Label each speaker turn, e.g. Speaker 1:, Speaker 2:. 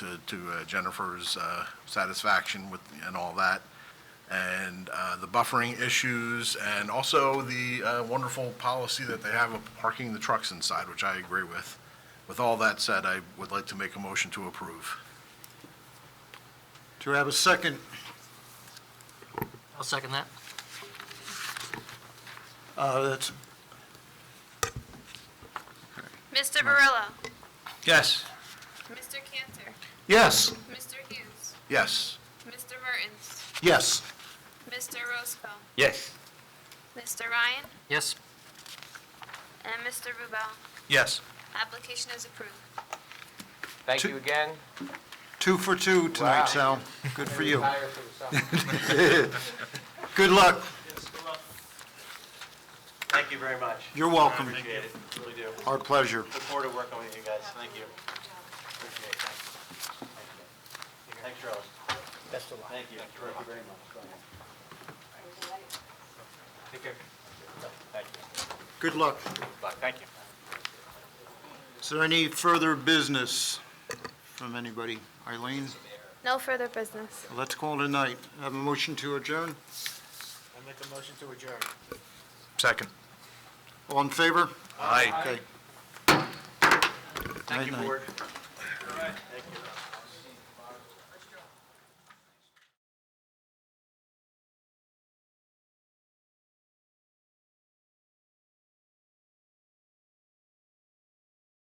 Speaker 1: to, to uh, Jennifer's uh, satisfaction with, and all that. And uh, the buffering issues, and also the uh, wonderful policy that they have of parking the trucks inside, which I agree with. With all that said, I would like to make a motion to approve.
Speaker 2: Do I have a second?
Speaker 3: I'll second that.
Speaker 2: Uh, That's,
Speaker 4: Mr. Barillo.
Speaker 1: Yes.
Speaker 4: Mr. Cantor.
Speaker 2: yes,
Speaker 4: Mr. Hughes.
Speaker 1: Yes.
Speaker 4: Mr. Mertens.
Speaker 2: yes.
Speaker 4: Mr. Roscoe.
Speaker 5: Yes.
Speaker 4: Mr. Ryan.
Speaker 3: Yes,
Speaker 4: And Mr. Rubel.
Speaker 2: Yes.
Speaker 4: Application is approved.
Speaker 5: Thank
Speaker 2: Two-
Speaker 5: you again.
Speaker 2: Two for two
Speaker 5: Wow.
Speaker 2: tonight, Sal. Good for you.
Speaker 5: Retire for the summer.
Speaker 2: Good luck.
Speaker 6: Thank you very much.
Speaker 2: You're welcome.
Speaker 6: I appreciate it, really do.
Speaker 2: Our pleasure.
Speaker 6: Look forward to working with you guys, thank you. Appreciate it, thanks. Thanks, Charles. Best of luck. Thank you, thank you very much. Take care. Thank you.
Speaker 2: Good luck.
Speaker 6: Good luck, thank you.
Speaker 2: Is there any further business from anybody? Eileen,
Speaker 4: No further business.
Speaker 2: let's call it a night. Have a motion to adjourn?
Speaker 6: I make a motion to adjourn.
Speaker 1: Second.
Speaker 2: All in favor?
Speaker 1: Aye.
Speaker 2: Okay.
Speaker 6: Thank
Speaker 2: Night,
Speaker 6: you,
Speaker 2: night.
Speaker 6: board. All right. Thank you.